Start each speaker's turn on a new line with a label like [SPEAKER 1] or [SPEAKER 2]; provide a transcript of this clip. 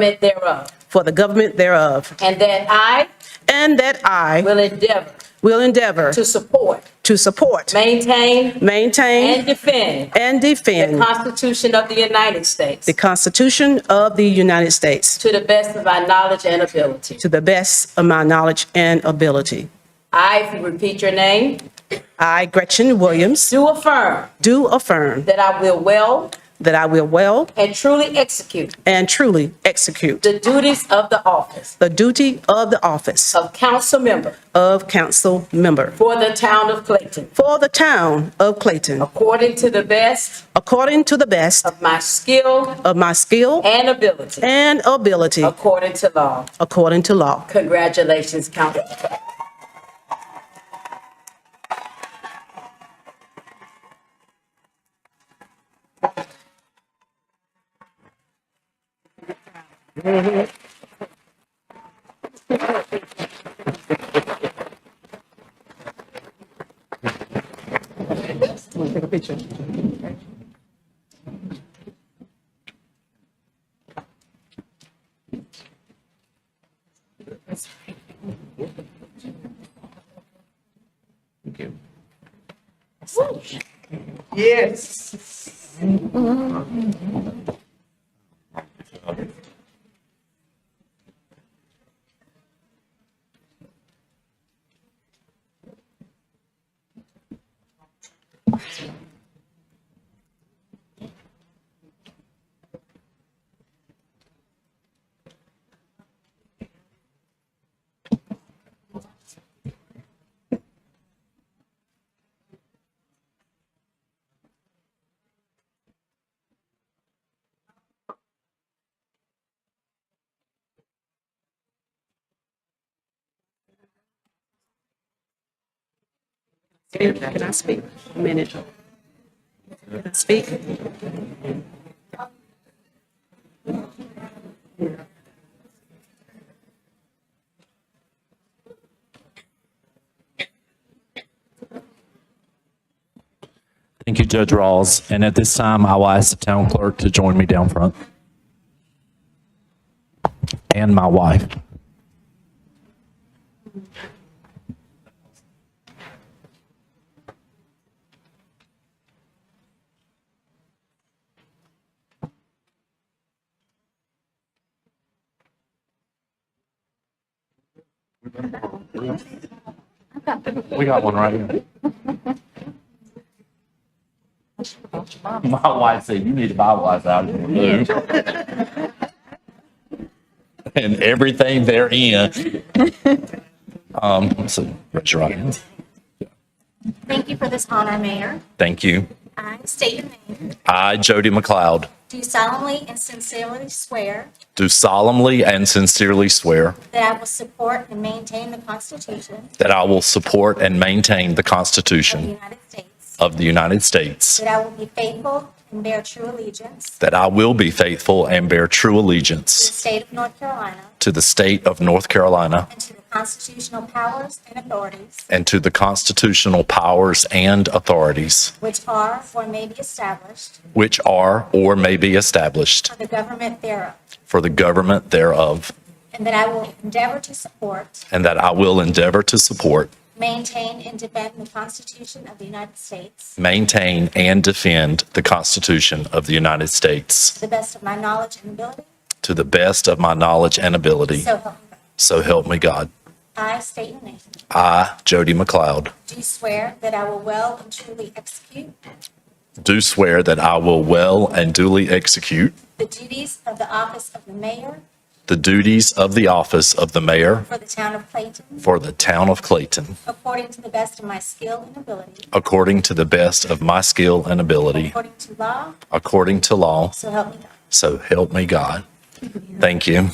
[SPEAKER 1] government thereof,
[SPEAKER 2] for the government thereof,
[SPEAKER 1] and that I
[SPEAKER 2] and that I
[SPEAKER 1] will endeavor
[SPEAKER 2] will endeavor
[SPEAKER 1] to support,
[SPEAKER 2] to support,
[SPEAKER 1] maintain, and
[SPEAKER 2] maintain,
[SPEAKER 1] defend
[SPEAKER 2] and
[SPEAKER 1] the
[SPEAKER 2] defend
[SPEAKER 1] Constitution of the United States
[SPEAKER 2] the Constitution of the United States
[SPEAKER 1] to the best of our knowledge and ability.
[SPEAKER 2] to the best of my knowledge and ability.
[SPEAKER 1] I, if you repeat your name,
[SPEAKER 2] I, Gretchen Williams,
[SPEAKER 1] do affirm
[SPEAKER 2] do affirm
[SPEAKER 1] that I will well
[SPEAKER 2] that I will well
[SPEAKER 1] and truly execute
[SPEAKER 2] and truly execute
[SPEAKER 1] the duties of the office
[SPEAKER 2] the duty of the office
[SPEAKER 1] of council member
[SPEAKER 2] of council member
[SPEAKER 1] for the town of Clayton,
[SPEAKER 2] for the town of Clayton,
[SPEAKER 1] according to the best
[SPEAKER 2] according to the best
[SPEAKER 1] of my skill
[SPEAKER 2] of my skill
[SPEAKER 1] and ability,
[SPEAKER 2] and ability,
[SPEAKER 1] according to law.
[SPEAKER 2] according to law.
[SPEAKER 1] Congratulations, Council.
[SPEAKER 2] Can I speak? A minute. Can I speak?
[SPEAKER 3] Thank you, Judge Rawls. And at this time, I will ask the town clerk to join me down front. And my wife. We got one right here. My wife said, you need to buy wise out of here. And everything therein. Um, so raise your right hand.
[SPEAKER 4] Thank you for this honor, Mayor.
[SPEAKER 3] Thank you.
[SPEAKER 4] I state your name.
[SPEAKER 3] I, Jody McLeod,
[SPEAKER 4] Do solemnly and sincerely swear
[SPEAKER 3] do solemnly and sincerely swear
[SPEAKER 4] that I will support and maintain the Constitution
[SPEAKER 3] that I will support and maintain the
[SPEAKER 4] of the
[SPEAKER 3] Constitution
[SPEAKER 4] United States,
[SPEAKER 3] of the United States,
[SPEAKER 4] that I will be faithful and bear true allegiance
[SPEAKER 3] that I will be faithful and bear true
[SPEAKER 4] to the
[SPEAKER 3] allegiance
[SPEAKER 4] state of North Carolina
[SPEAKER 3] to the state of North Carolina
[SPEAKER 4] and to the constitutional powers and authorities
[SPEAKER 3] and to the constitutional powers and authorities
[SPEAKER 4] which are or may be established
[SPEAKER 3] which are or may be established
[SPEAKER 4] for the government thereof,
[SPEAKER 3] for the government thereof,
[SPEAKER 4] and that I will endeavor to support,
[SPEAKER 3] and that I will endeavor to support,
[SPEAKER 4] maintain, and defend the Constitution of the United States
[SPEAKER 3] maintain, and defend the Constitution of the United States
[SPEAKER 4] to the best of my knowledge and ability,
[SPEAKER 3] to the best of my knowledge and ability.
[SPEAKER 4] so help me God.
[SPEAKER 3] So help me God.
[SPEAKER 4] I state your name.
[SPEAKER 3] I, Jody McLeod,
[SPEAKER 4] Do swear that I will well and truly execute
[SPEAKER 3] do swear that I will well and duly execute
[SPEAKER 4] the duties of the office of the mayor
[SPEAKER 3] the duties of the office of the mayor
[SPEAKER 4] for the town of Clayton
[SPEAKER 3] for the town of Clayton,
[SPEAKER 4] according to the best of my skill and ability,
[SPEAKER 3] according to the best of my skill and ability,
[SPEAKER 4] according to law,
[SPEAKER 3] according to law.
[SPEAKER 4] so help me God.
[SPEAKER 3] So help me God. Thank you.